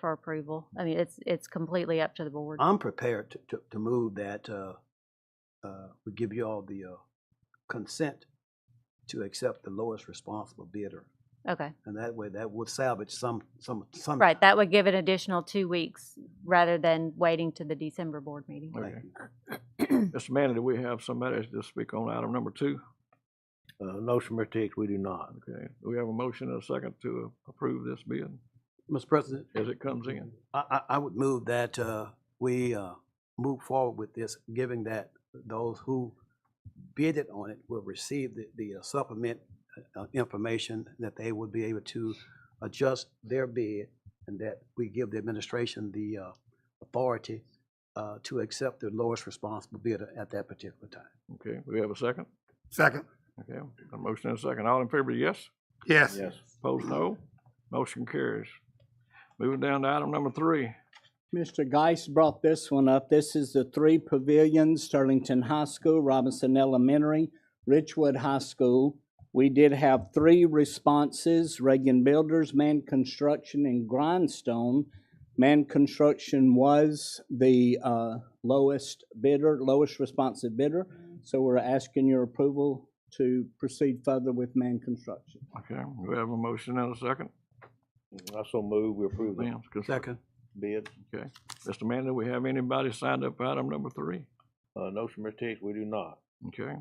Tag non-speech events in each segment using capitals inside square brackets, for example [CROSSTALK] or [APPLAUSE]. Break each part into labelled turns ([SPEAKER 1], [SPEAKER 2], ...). [SPEAKER 1] for approval. I mean, it's, it's completely up to the board.
[SPEAKER 2] I'm prepared to, to, to move that, uh, uh, we give you all the, uh, consent to accept the lowest responsible bidder.
[SPEAKER 1] Okay,
[SPEAKER 2] And that way, that would salvage some, some, some.
[SPEAKER 1] right, that would give an additional two weeks rather than waiting to the December board meeting.
[SPEAKER 2] Thank
[SPEAKER 3] Okay.
[SPEAKER 2] you.
[SPEAKER 3] Mr. Manley, do we have somebody to speak on item number two?
[SPEAKER 4] Uh, no, sir, Mr. Hicks, we do not.
[SPEAKER 3] Okay, do we have a motion and a second to approve this bid
[SPEAKER 2] Mr. President,
[SPEAKER 3] as it comes in?
[SPEAKER 2] I, I, I would move that, uh, we, uh, move forward with this, giving that those who bidded on it will receive the, the supplement, uh, information that they would be able to adjust their bid and that we give the administration the, uh, authority, uh, to accept the lowest responsible bidder at that particular time.
[SPEAKER 3] Okay, do we have a second?
[SPEAKER 5] Second.
[SPEAKER 3] Okay, a motion and a second. All in favor, yes?
[SPEAKER 5] Yes.
[SPEAKER 3] Opposed, no? Motion carries. Moving down to item number three.
[SPEAKER 6] Mr. Geis brought this one up. This is the three pavilions, Sterlington High School, Robinson Elementary, Richwood High School. We did have three responses, Reagan Builders, Man Construction, and Grindstone. Man Construction was the uh, lowest bidder, lowest responsive bidder, so we're asking your approval to proceed further with Man Construction.
[SPEAKER 3] Okay, do we have a motion and a second?
[SPEAKER 4] I so move, we approve the
[SPEAKER 3] Ma'am, cons-
[SPEAKER 2] Second.
[SPEAKER 4] bid.
[SPEAKER 3] Okay. Mr. Manley, we have anybody signed up for item number three?
[SPEAKER 4] Uh, no, sir, Mr. Hicks, we do not.
[SPEAKER 3] Okay.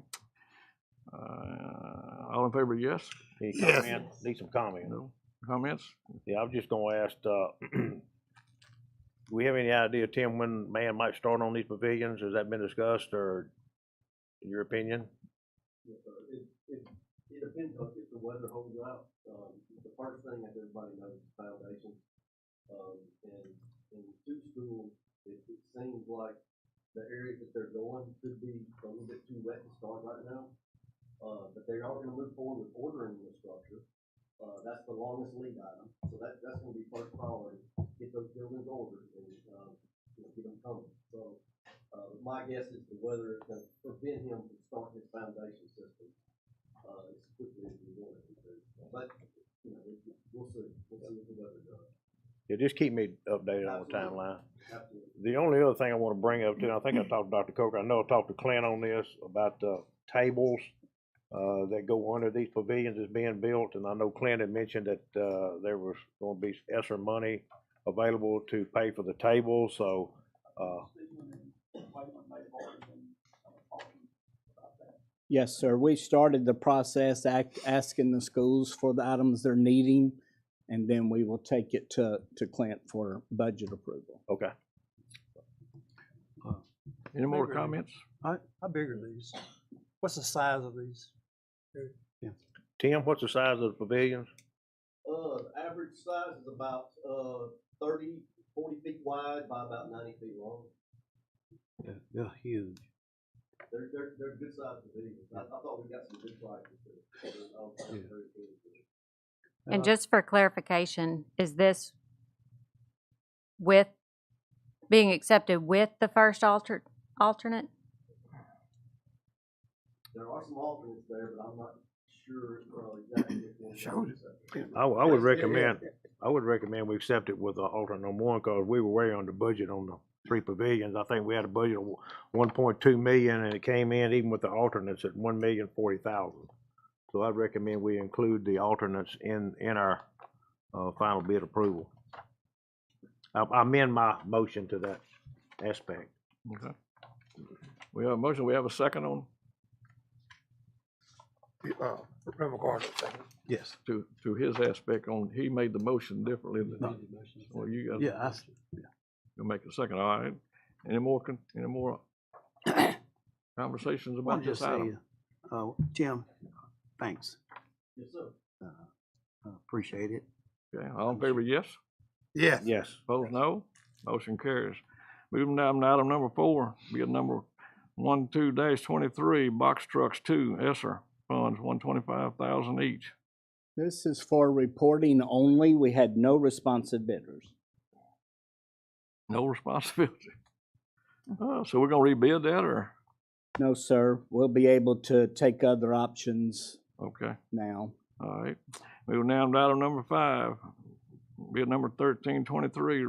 [SPEAKER 3] Uh, all in favor, yes?
[SPEAKER 4] Need
[SPEAKER 5] Yes.
[SPEAKER 4] comment, need some comment.
[SPEAKER 3] No? Comments?
[SPEAKER 4] Yeah, I was just gonna ask, uh, [CLEARS THROAT] do we have any idea, Tim, when man might start on these pavilions? Has that been discussed or in your opinion?
[SPEAKER 2] Yes, sir. It, it, it depends on if the weather holds out. Um, the first thing that everybody knows is foundation. Um, and, and two schools, it, it seems like the area that they're going could be a little bit too wet to start right now. Uh, but they are gonna move forward with ordering the structure. Uh, that's the longest lead item, so that, that's gonna be first priority, get those buildings ordered and, um, you know, get them coming. So, uh, my guess is the weather is gonna prevent him from starting his foundation system, uh, as quickly as he wanted to do. But, you know, we- we'll see, we'll see what the weather does.
[SPEAKER 4] Yeah, just keep me updated on the timeline.
[SPEAKER 2] Absolutely.
[SPEAKER 4] The only other thing I wanna bring up too, and I think I talked to Dr. Coker, I know I talked to Clint on this about the tables uh, that go under these pavilions that's being built, and I know Clint had mentioned that, uh, there was gonna be extra money available to pay for the tables, so, uh,
[SPEAKER 6] Yes, sir. We started the process, act, asking the schools for the items they're needing, and then we will take it to, to Clint for budget approval.
[SPEAKER 4] okay.
[SPEAKER 3] Any more
[SPEAKER 7] Maybe.
[SPEAKER 3] comments?
[SPEAKER 7] How big are these? What's the size of these?
[SPEAKER 4] Tim, what's the size of the pavilions?
[SPEAKER 2] Uh, the average size is about, uh, thirty, forty feet wide by about ninety feet long.
[SPEAKER 4] They're huge.
[SPEAKER 2] They're, they're, they're good sized pavilions. I, I thought we got some good prices there. I'll find it very soon.
[SPEAKER 1] And just for clarification, is this with, being accepted with the first alter, alternate?
[SPEAKER 2] There are some alternates there, but I'm not sure, uh, exactly. which ones are
[SPEAKER 7] Showed
[SPEAKER 2] accepted.
[SPEAKER 4] I, I would
[SPEAKER 2] Yes, yeah, yeah,
[SPEAKER 4] recommend, I would recommend we accept it with uh, alternate number one, cause we were way under budget on the three pavilions. I think we had a budget of one point two million, and it came in even with the alternates at one million forty thousand. So I'd recommend we include the alternates in, in our, uh, final bid approval. I, I amend my motion to that aspect.
[SPEAKER 3] Okay. We have a motion, we have a second on,
[SPEAKER 7] Uh, Reverend Carter, second.
[SPEAKER 2] Yes.
[SPEAKER 3] to, to his aspect on, he made the motion differently than, well, you guys.
[SPEAKER 2] Yeah, I, s-
[SPEAKER 3] You'll make a second, all right? Any more, con- any
[SPEAKER 2] [COUGHS]
[SPEAKER 3] more conversations
[SPEAKER 2] I'm
[SPEAKER 3] about
[SPEAKER 2] just
[SPEAKER 3] this item?
[SPEAKER 2] saying, uh, Tim, thanks. Yes, sir. Appreciate it.
[SPEAKER 3] Okay, all in favor, yes?
[SPEAKER 7] Yes.
[SPEAKER 4] Yes.
[SPEAKER 3] Opposed, no? Motion carries. Moving down to item number four, bid number one, two dash twenty-three, box trucks two, Esser funds, one twenty-five thousand each.
[SPEAKER 6] This is for reporting only. We had no responsive bidders.
[SPEAKER 3] No [LAUGHS] responsibility.
[SPEAKER 2] Mm-hmm.
[SPEAKER 3] Uh, so we're gonna rebid that or,
[SPEAKER 6] No, sir. We'll be able to take other options
[SPEAKER 3] okay,
[SPEAKER 6] now.
[SPEAKER 3] all right. Moving down to item number five, bid number thirteen twenty-three,